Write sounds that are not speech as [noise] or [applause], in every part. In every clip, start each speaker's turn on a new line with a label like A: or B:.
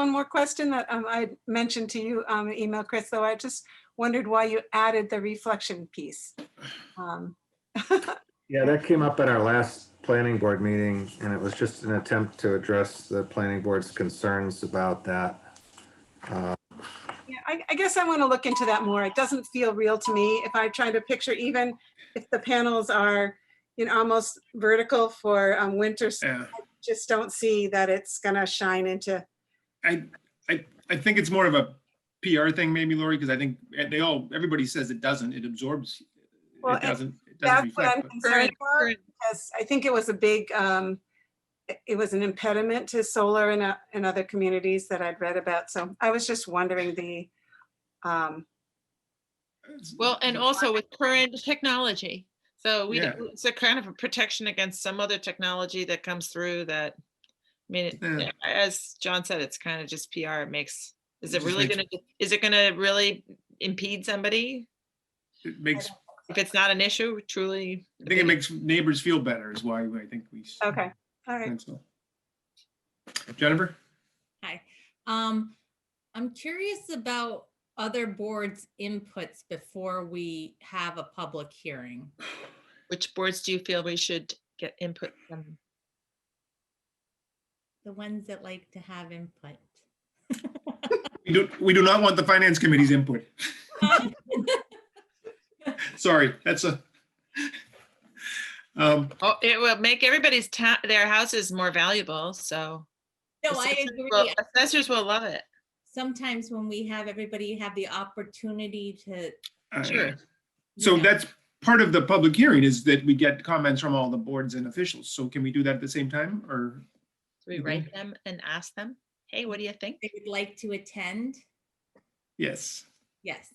A: one more question that um, I mentioned to you on the email, Chris, though I just wondered why you added the reflection piece. Um,
B: Yeah, that came up at our last planning board meeting, and it was just an attempt to address the planning board's concerns about that.
A: Yeah, I, I guess I want to look into that more. It doesn't feel real to me if I try to picture even if the panels are, you know, almost vertical for um, winter, s-
C: Yeah,
A: just don't see that it's gonna shine into,
C: I, I, I think it's more of a PR thing maybe, Lori, because I think they all, everybody says it doesn't, it absorbs.
A: Well,
C: It doesn't, it doesn't
A: that's what I'm
C: reflect. but-
A: concerned about.
D: Current-
A: because I think it was a big, um, it- it was an impediment to solar in, o- in other communities that I'd read about. So I was just wondering the, um,
D: Well, and also with current technology. So we,
C: Yeah.
D: it's a kind of a protection against some other technology that comes through that, I mean,
C: Yeah.
D: it- as John said, it's kind of just PR. It makes, is
C: It
D: it
C: just
D: really
C: makes-
D: gonna, is it gonna really impede somebody?
C: It makes,
D: If it's not an issue, truly.
C: I think it makes neighbors feel better is why I think we. s-
A: okay, all right.
C: think so. Jennifer?
E: Hi, um, I'm curious about other boards' inputs before we have a public hearing.
D: Which boards do you feel we should get input from?
E: The ones that like to have input.
C: We do, we do not want the finance committee's
A: [laughs]
C: input. Sorry, that's a. Um,
D: Oh, it will make everybody's town, their houses more valuable, so.
E: No, I
D: assessors will-
E: agree.
D: Assessors will love it.
E: Sometimes when we have everybody have the opportunity to. you
C: I-
D: Sure.
C: So
E: know,
C: that's part of the public hearing is that we get comments from all the boards and officials. So can we do that at the same time or?
D: Do we
C: Mhm.
D: write them and ask them, hey, what do you think?
E: They would like to attend,
C: Yes,
E: yes.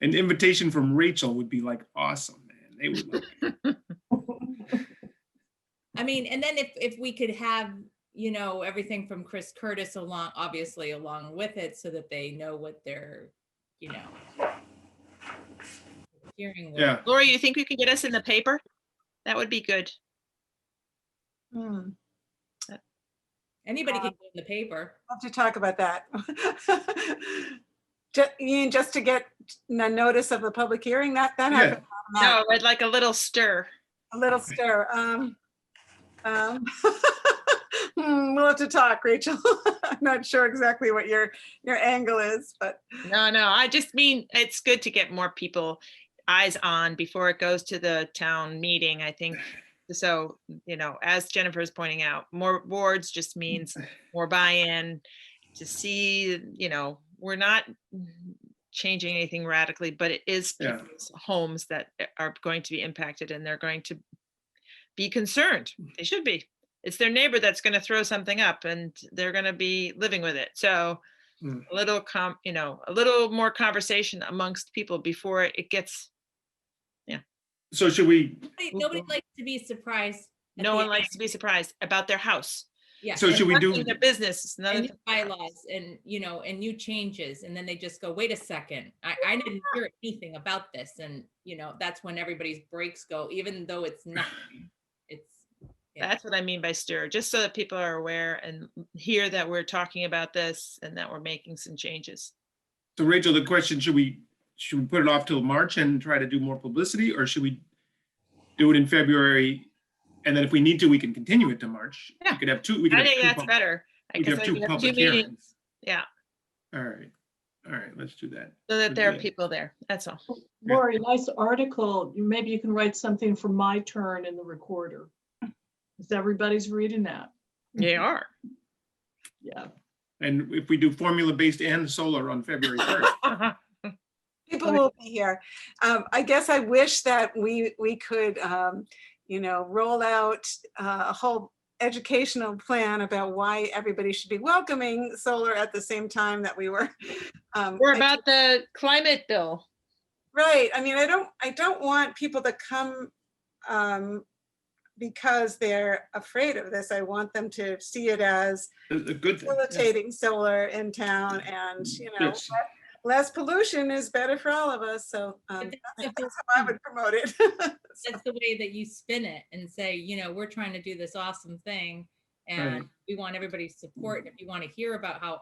C: an invitation from Rachel would be like awesome, man. They would love it.
E: I mean, and then if, if we could have, you know, everything from Chris Curtis along, obviously along with it, so that they know what they're, you know. Hearing. what-
C: Yeah,
D: Laura, you think you can get us in the paper? That would be good.
A: Hmm,
E: Anybody can go in the paper.
A: Love to talk about that. [laughs] Ju- Ian, just to get a notice of the public hearing, that, that
C: Yeah.
A: happened.
D: No, I'd like a little stir.
A: A little stir. Um, um, [laughs] hmm, We'll have to talk, Rachel. [laughs] I'm not sure exactly what your, your angle is, but
D: No, no, I just mean, it's good to get more people eyes on before it goes to the town meeting, I think. So, you know, as Jennifer is pointing out, more boards just means more buy-in to see, you know, we're not changing anything radically, but it is
C: Yeah.
D: people's homes that are going to be impacted and they're going to be concerned. They should be. It's their neighbor that's going to throw something up and they're going to be living with it. So
C: Mm.
D: a little com, you know, a little more conversation amongst people before it gets,
C: so should we,
E: Nobody-
D: Well,
E: Nobody
D: well-
E: likes to be surprised. at
D: no
E: the
D: one
E: end.
D: likes to be surprised about their house.
E: Yeah.
C: so
D: and
C: should we do,
D: especially Their business. It's another
E: And
D: thing.
E: new bylaws and, you know, and new changes. And then they just go, wait a second, I, I didn't hear anything about this. And, you know, that's when everybody's brakes go, even though
D: [laughs]
E: it's not, it's. yeah.
D: That's what I mean by stir, just so that people are aware and hear that we're talking about this and that we're making some changes.
C: so Rachel, the question, should we, should we put it off till March and try to do more publicity or should we do it in February? And then if we need to, we can continue it to March. We
D: Yeah.
C: could have two, we could
D: I
C: have
D: think
C: two
D: that's
C: pub-
D: better. I
C: we could
D: guess
C: have
D: I
C: two
D: could have two
C: public
D: meetings
C: hearings.
D: Yeah.
C: All right, all right, let's do that.
D: so that
C: would
D: there
C: be
D: are
C: it.
D: people there. That's all.
C: Yeah.
F: Lori, nice article. You- Maybe you can write something for my turn in the recorder. 'Cause everybody's reading that.
D: They are.
F: Yeah.
C: And if we do formula-based and solar on February first,
A: People will be here. Um, I guess I wish that we, we could, um, you know, roll out uh, a whole educational plan about why everybody should be welcoming solar at the same time that we were. [laughs] um,
D: [laughs] We're
A: I-
D: about the climate bill.
A: Right, I mean, I don't, I don't want people to come, um, because they're afraid of this. I want them to see it as
C: a good thing. yeah. Mm-hmm.
A: facilitating solar in town and, you know,
C: Yes.
A: less pollution is better for all of us, so, um,
E: But that's the
A: that's
E: whole
A: how I would promote it. [laughs]
E: that's the way that you spin it and say, you know,
D: Mm.
E: we're trying to do this awesome thing and we want everybody's support. And if you want to hear about how